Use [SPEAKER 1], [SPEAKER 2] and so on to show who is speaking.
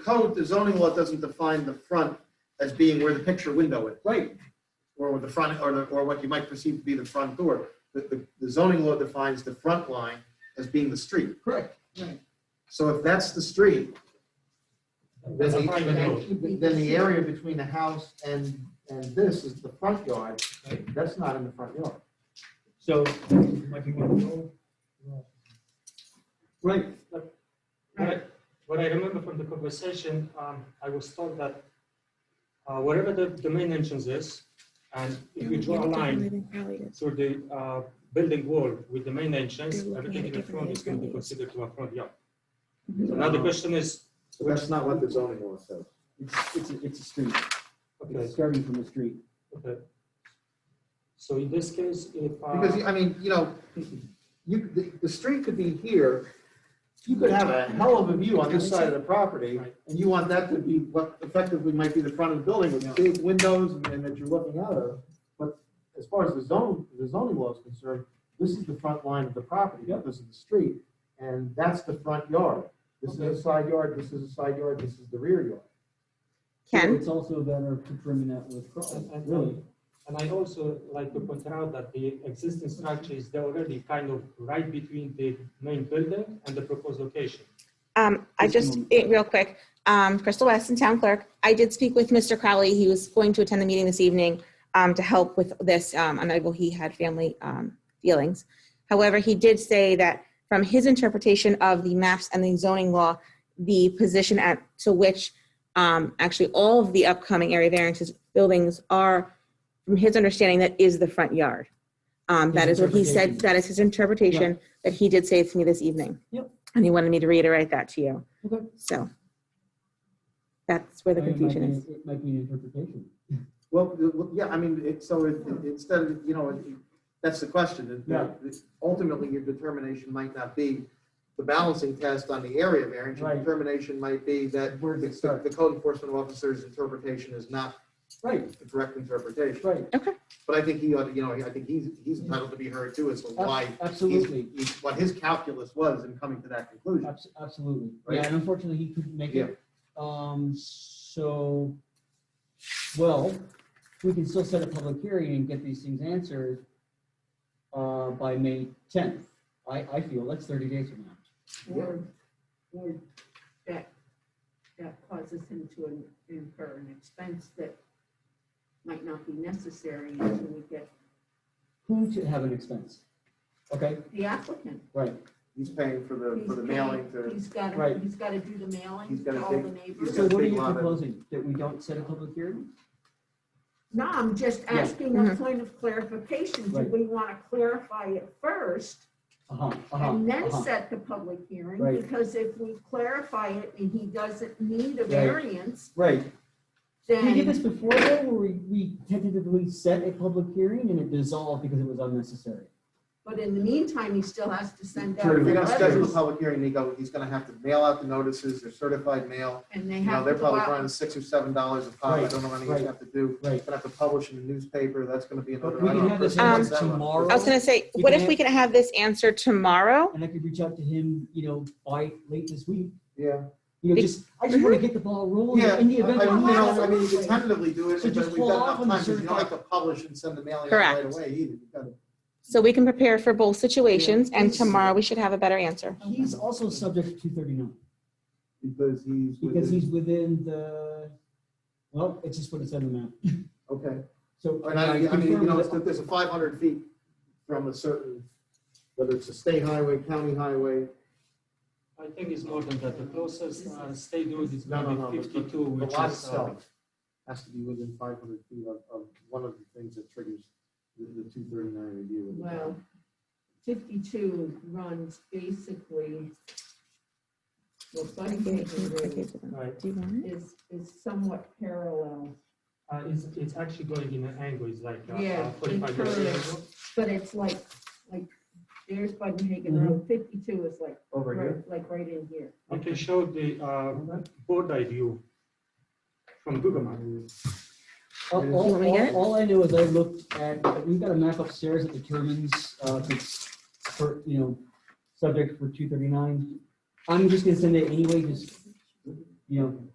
[SPEAKER 1] code, the zoning law doesn't define the front as being where the picture window is,
[SPEAKER 2] Right,
[SPEAKER 1] or the front, or the, or what you might perceive to be the front door. The- The, the zoning law defines the front line as being the street.
[SPEAKER 2] correct.
[SPEAKER 1] So if that's the street, then
[SPEAKER 3] That's a private
[SPEAKER 1] the,
[SPEAKER 3] road.
[SPEAKER 1] then the area between the house and, and this is the front yard. That's not in the front yard.
[SPEAKER 3] So, might be one.
[SPEAKER 2] Right.
[SPEAKER 3] What I- what I remember from the conversation, um, I was told that uh, wherever the, the main entrance is, and if you draw a line through the uh, building wall with the main entrance,
[SPEAKER 4] They're
[SPEAKER 3] everything
[SPEAKER 4] looking at
[SPEAKER 3] in the
[SPEAKER 4] different Mm-hmm.
[SPEAKER 3] front is going to be
[SPEAKER 4] areas.
[SPEAKER 3] considered to a front yard. So now the question is,
[SPEAKER 1] So that's not what the zoning law says.
[SPEAKER 5] It's, it's, a- it's a street. It's
[SPEAKER 3] okay,
[SPEAKER 5] starting from a street.
[SPEAKER 3] okay. So in this case, if. uh,
[SPEAKER 1] Because, I mean, you know, you, the, the street could be here, you could have a hell of a view on this side of the property,
[SPEAKER 3] Right.
[SPEAKER 1] and you want that to be what effectively might be the front of the building with big windows and, and that you're looking out of. But as far as the zone, the zoning law is concerned, this is the front line of the property, this is the street, and that's the front yard. This is a side yard, this is a side yard, this is the rear yard.
[SPEAKER 4] Ken,
[SPEAKER 5] It's also a matter of trimming that with cross,
[SPEAKER 3] And- and- um,
[SPEAKER 5] really.
[SPEAKER 3] And I also like to point out that the existing structure is there already kind of right between the main building and the proposed location.
[SPEAKER 4] um, I
[SPEAKER 5] Just a
[SPEAKER 4] just,
[SPEAKER 5] moment.
[SPEAKER 4] eh, real quick, um, Crystal Weston, Town Clerk, I did speak with Mr. Crowley. He was going to attend the meeting this evening, um, to help with this, um, unable, he had family, um, feelings. However, he did say that from his interpretation of the maps and the zoning law, the position at, to which, um, actually all of the upcoming area variances buildings are, from his understanding, that is the front yard. Um, that
[SPEAKER 5] His
[SPEAKER 4] is what he said,
[SPEAKER 5] interpretation.
[SPEAKER 4] that is his interpretation that he did say to me this evening.
[SPEAKER 5] Yep.
[SPEAKER 4] And he wanted me to reiterate that to you.
[SPEAKER 5] Okay.
[SPEAKER 4] So that's where the
[SPEAKER 5] I mean, it might
[SPEAKER 4] confusion is.
[SPEAKER 5] be- It might be an interpretation.
[SPEAKER 1] Well, the- well, yeah, I mean, it, so it- it- instead of, you know, it- that's the question. is that Ultimately, your determination might not be the balancing test on the area variance. Your
[SPEAKER 5] Right.
[SPEAKER 1] determination might be that
[SPEAKER 5] Where's it
[SPEAKER 1] the
[SPEAKER 5] start?
[SPEAKER 1] the code enforcement officer's interpretation is not
[SPEAKER 5] Right,
[SPEAKER 1] the correct interpretation.
[SPEAKER 5] right,
[SPEAKER 1] But I think he ought to, you know, I think he's, he's entitled to be heard too as to why,
[SPEAKER 5] Ab-
[SPEAKER 1] he's-
[SPEAKER 5] absolutely,
[SPEAKER 1] he's- what his calculus was in coming to that conclusion.
[SPEAKER 5] Abs- absolutely.
[SPEAKER 1] Right.
[SPEAKER 5] Yeah, and unfortunately, he couldn't make
[SPEAKER 1] Yeah.
[SPEAKER 5] it. Um, so, well, we can still set a public hearing and get these things answered uh, by May tenth. I, I feel that's thirty days from now.
[SPEAKER 6] Or, or that, that causes him to in- incur an expense that might not be necessary until we get
[SPEAKER 5] Who should have an expense? Okay,
[SPEAKER 6] the applicant.
[SPEAKER 5] right.
[SPEAKER 1] He's paying for the, for the
[SPEAKER 6] He's
[SPEAKER 1] mailing
[SPEAKER 6] gotta-
[SPEAKER 1] to,
[SPEAKER 6] He's got,
[SPEAKER 5] Right.
[SPEAKER 6] to he's got to do the mailing
[SPEAKER 1] He's gotta
[SPEAKER 6] to all the
[SPEAKER 1] take-
[SPEAKER 6] neighbors.
[SPEAKER 5] So
[SPEAKER 1] got a
[SPEAKER 5] what are
[SPEAKER 1] big
[SPEAKER 5] you
[SPEAKER 1] lot of-
[SPEAKER 5] proposing? That we don't set a public hearing?
[SPEAKER 6] No, I'm just
[SPEAKER 5] Yeah. Mm-hmm.
[SPEAKER 6] asking
[SPEAKER 4] Mhm.
[SPEAKER 6] a point of clarification. Do
[SPEAKER 5] Right.
[SPEAKER 6] we want to clarify it first
[SPEAKER 5] Uh-huh, uh-huh,
[SPEAKER 6] and then
[SPEAKER 5] uh-huh.
[SPEAKER 6] set the public hearing?
[SPEAKER 5] Right.
[SPEAKER 6] Because if we clarify it and he doesn't need a
[SPEAKER 5] Right.
[SPEAKER 6] variance,
[SPEAKER 5] Right. Did we
[SPEAKER 6] then.
[SPEAKER 5] get this before though, where we, we tentatively set a public hearing and it dissolved because it was unnecessary?
[SPEAKER 6] But in the meantime, he still has to send out
[SPEAKER 1] If
[SPEAKER 6] the
[SPEAKER 1] we don't schedule a
[SPEAKER 6] letters,
[SPEAKER 1] public hearing, they go, he's gonna have to mail out the notices, they're certified mail.
[SPEAKER 6] and they
[SPEAKER 1] You know,
[SPEAKER 6] have
[SPEAKER 1] they're
[SPEAKER 6] to go
[SPEAKER 1] probably
[SPEAKER 6] out.
[SPEAKER 1] running six or seven dollars a pop. I don't know what he's gonna have to do.
[SPEAKER 5] Right.
[SPEAKER 1] Gonna have to publish in the newspaper. That's gonna be another.
[SPEAKER 5] But we
[SPEAKER 1] I
[SPEAKER 5] can
[SPEAKER 1] don't know,
[SPEAKER 5] have this
[SPEAKER 1] person
[SPEAKER 4] Um,
[SPEAKER 1] wants that one.
[SPEAKER 5] tomorrow.
[SPEAKER 4] I was gonna say,
[SPEAKER 5] You
[SPEAKER 4] what
[SPEAKER 5] can
[SPEAKER 4] if we can have this answer tomorrow?
[SPEAKER 5] And I could reach out to him, you know, by late this week,
[SPEAKER 1] Yeah.
[SPEAKER 5] you know, just, I just wanna get the ball
[SPEAKER 1] Mhm.
[SPEAKER 5] rolling
[SPEAKER 1] Yeah, I, I mean,
[SPEAKER 5] in the
[SPEAKER 1] you
[SPEAKER 5] event. that we have-
[SPEAKER 1] know, I mean, you can tentatively do it,
[SPEAKER 5] So
[SPEAKER 1] but
[SPEAKER 5] just
[SPEAKER 1] we've got
[SPEAKER 5] hold off
[SPEAKER 1] enough
[SPEAKER 5] on the
[SPEAKER 1] time, 'cause you don't like
[SPEAKER 5] certified-
[SPEAKER 1] to publish and send the mailing out right
[SPEAKER 4] Correct.
[SPEAKER 1] away either. You've gotta-
[SPEAKER 4] So we can prepare for both situations and tomorrow we should have a better answer.
[SPEAKER 5] He's also subject to two thirty-nine,
[SPEAKER 1] Because he's.
[SPEAKER 5] because
[SPEAKER 1] within-
[SPEAKER 5] he's within the, well, it's just what it said on the map,
[SPEAKER 1] Okay.
[SPEAKER 5] so.
[SPEAKER 1] And I, I mean, you
[SPEAKER 5] confirmed
[SPEAKER 1] know,
[SPEAKER 5] that-
[SPEAKER 1] it's, there's a five hundred feet from a certain, whether it's a state highway, county highway.
[SPEAKER 3] I think it's more than that. The closest uh, state road is
[SPEAKER 1] No, no, no,
[SPEAKER 3] maybe
[SPEAKER 1] but- but
[SPEAKER 3] fifty-two,
[SPEAKER 1] The
[SPEAKER 3] which
[SPEAKER 1] lot
[SPEAKER 3] is. uh,
[SPEAKER 1] itself has to be within five hundred feet of, of one of the things that triggers the, the two thirty-nine review. of the town.
[SPEAKER 6] Well, fifty-two runs basically. Well, Bundaberg Road
[SPEAKER 3] Right,
[SPEAKER 4] Do you want it?
[SPEAKER 6] is, is somewhat parallel,
[SPEAKER 3] Uh, it's, it's actually going in an angle, it's like uh,
[SPEAKER 6] Yeah,
[SPEAKER 3] uh, forty-five
[SPEAKER 6] it
[SPEAKER 3] degrees.
[SPEAKER 6] curves. but it's like, like, there's Bundaberg Road, fifty-two is like,
[SPEAKER 1] Over here.
[SPEAKER 6] right- like right in here.
[SPEAKER 3] I can show the uh, board eye view from Google Maps.
[SPEAKER 5] All,
[SPEAKER 1] You
[SPEAKER 5] all,
[SPEAKER 4] wanna get
[SPEAKER 5] all,
[SPEAKER 4] it?
[SPEAKER 5] all I know is I looked at, we've got a map upstairs that determines, uh, if it's for, you know, subject for two thirty-nine. I'm just gonna send it anyway, just you know,